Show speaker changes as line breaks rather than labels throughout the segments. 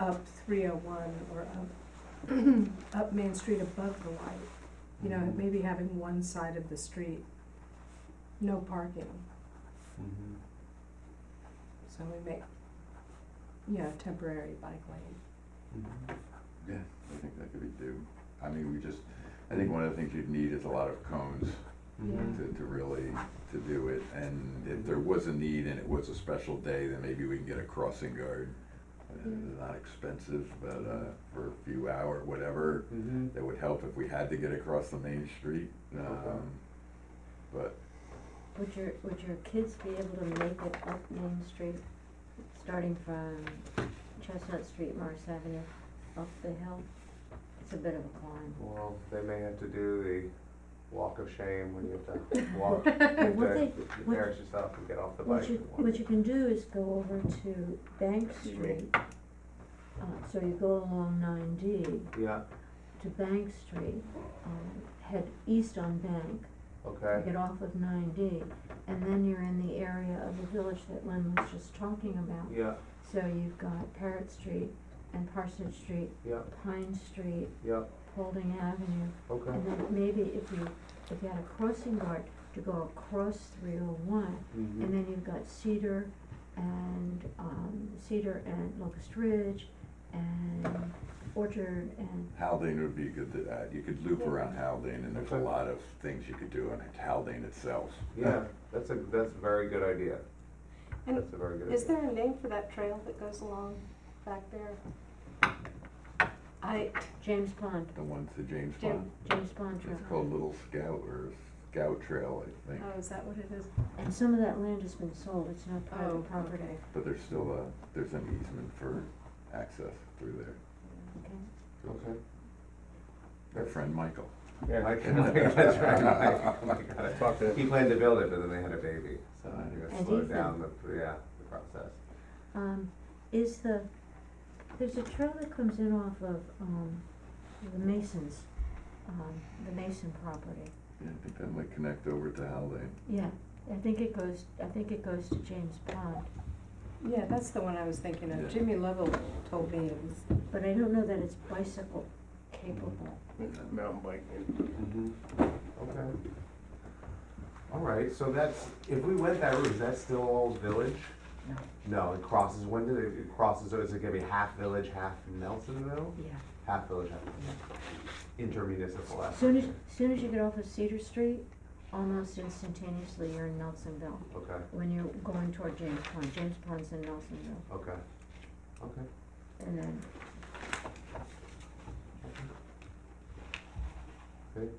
up three oh one or up, up Main Street above the light. You know, maybe having one side of the street, no parking,
Mhm.
so we make, you know, temporary bike lane.
Mhm.
Yeah, I think that could be do. I mean, we just, I think one of the things you'd need is a lot of cones
Mhm.
to, to really, to do it. And if there was a need and it was a special day, then maybe we can get a crossing guard. Uh,
Yeah.
Not expensive, but, uh, for a few hour, whatever,
Mhm.
that would help if we had to get across the main street.
Okay.
Um, but,
Would your, would your kids be able to make it up Main Street, starting from Chestnut Street, Morris Avenue, up the hill? It's a bit of a climb.
Well, they may have to do the walk of shame when you have to walk, you
But
have
what
to
they, what-
embarrass yourself and get off the bike
what you,
and walk.
what you can do is go over to Bank
Excuse me.
Street. Uh, so you go along nine D
Yeah,
to Bank Street, um, head east on Bank, You
okay,
get off of nine D, and then you're in the area of the village that Lynn was just talking about.
yeah,
So you've got Parrot Street and Parsonage Street,
yeah,
Pine Street,
yeah,
Holding Avenue,
okay,
and then maybe if you, if you had a crossing guard to go across three oh one, and
mhm,
then you've got Cedar and, um, Cedar and Locust Ridge and Orchard and,
Haldane would be good to that. You could loop around Haldane and there's a
Okay.
lot of things you could do on Haldane itself.
yeah, that's a, that's a very good idea.
And
That's a very good idea.
Is there a name for that trail that goes along back there? I,
James Pond,
The ones to James
Jim-
Pond.
James Pond Trail.
It's called Little Scout or Scout Trail, I think.
oh, is that what it is?
And some of that land has been sold, it's not
Oh,
private property,
okay.
But there's still a, there's an easement for access through there.
okay?
Okay.
Our friend Michael.
Yeah, I can, that's right, I, I gotta talk to, he planned to build it, but then they had a baby, so I think that
And
slowed
Ethan.
down the, yeah, the process.
um, is the, there's a trail that comes in off of, um, the Masons, um, the Mason property.
Yeah, I think that might connect over to Haldane.
Yeah, I think it goes, I think it goes to James Pond,
Yeah, that's the one I was thinking
Yeah.
of. Jimmy Lovell told me it was
but I don't know that it's bicycle capable.
mountain biking.
Mm-hmm. Okay. All right, so that's, if we went that route, is that still all village?
No.
No, it crosses, when did it, it crosses, so is it gonna be half village, half Nelsonville?
Yeah.
Half village, half. Intermunicipal. effort.
Soon as, soon as you get off of Cedar Street, almost instantaneously, you're in Nelsonville,
Okay,
when you're going toward James Pond, James Pond's in Nelsonville,
okay, okay.
and then,
Good.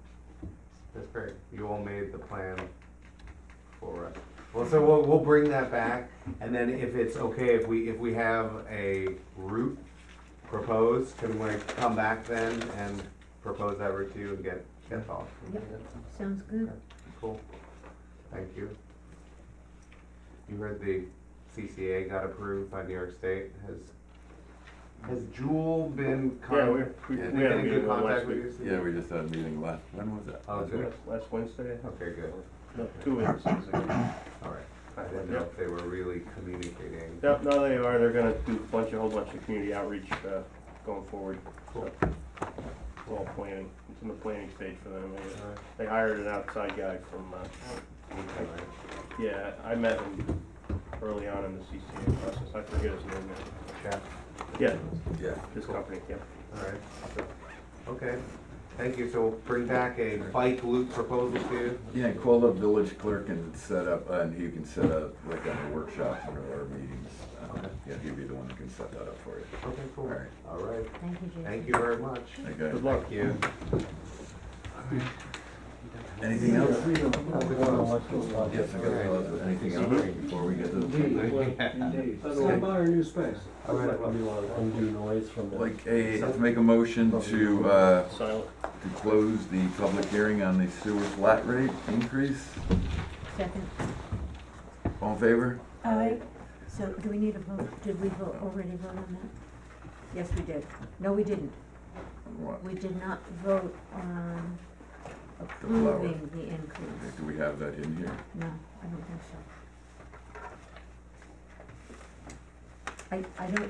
That's great. You all made the plan for us. Well, so we'll, we'll bring that back, and then if it's okay, if we, if we have a route proposed, can we come back then and propose that route to you and get, get thoughts?
Yep. sounds good.
Cool. Thank you. You heard the CCA got approved by New York State. Has, has Jewel been
Yeah,
con-
we, we,
Yeah,
been
we had a
in
meeting
good
on last
contact with
week.
you? Steve?
Yeah, we just had a meeting last, when was that?
Oh, good.
Last Wednesday?
Okay, good.
No, two weeks. it was like-
All right. I didn't know if they were really communicating.
No, no, they are, they're gonna do a bunch, a whole bunch of community outreach, uh, going forward.
Cool.
We're all planning, it's in the planning stage for them. They-
All right.
They hired an outside guy from, uh,
Okay, all right.
yeah, I met him early on in the CCA process, I forget his name now.
Yeah,
Yeah,
Yeah.
his company, yeah.
all right. Okay, thank you. So we'll bring back a bike loop proposal to you.
Yeah, call up village clerk and set up, uh, and he can set up like on the workshops or our meetings. Um, Yeah, he'd be the one who can set that up for you.
Okay, cool.
All right.
All right,
Thank you, Jason.
thank you very much.
Okay.
Good luck.
Thank you.
Anything else? Yes, I
All right.
got, anything else before we get to the,
I'll buy her new space.
All right, well,
undo noise from the.
like, a, let's make a motion to, uh,
Silent,
to close the public hearing on the sewer flat rate increase.
Second,
All in favor?
I,
so do we need a vote? Did we vote, already vote on that? Yes, we did. No, we didn't.
What?
We did not vote on
The flower.
approving the increase.
Do we have that in here?
No, I don't think so. I, I don't